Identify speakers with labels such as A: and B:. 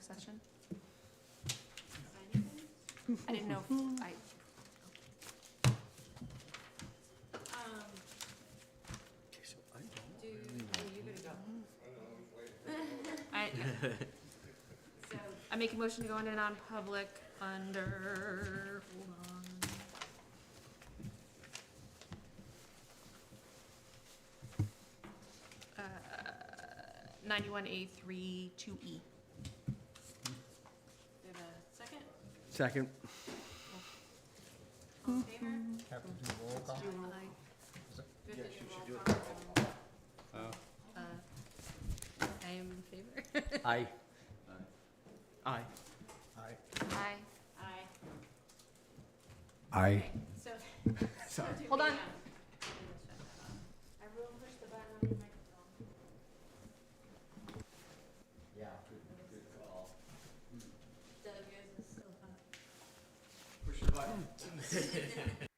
A: session? I didn't know, if I,
B: Um, Do, oh, you gotta go.
A: I, I make a motion to go into non-public under, hold on. Uh, ninety-one A three two E.
B: Do you have a second?
C: Second.
B: All in favor?
D: Have to do roll call?
B: Do you want- do you have to do roll call? Uh,
A: Uh, I am in favor.
C: Aye. Aye.
D: Aye.
A: Aye.
B: Aye.
D: Aye.
B: Okay, So. so
D: Sorry.
B: do
A: Hold
B: we,
A: on.
B: um, shut that off. Everyone push the button on your microphone.
C: Yeah, good, good call.
B: Doug, yours is still up.
C: Push the button.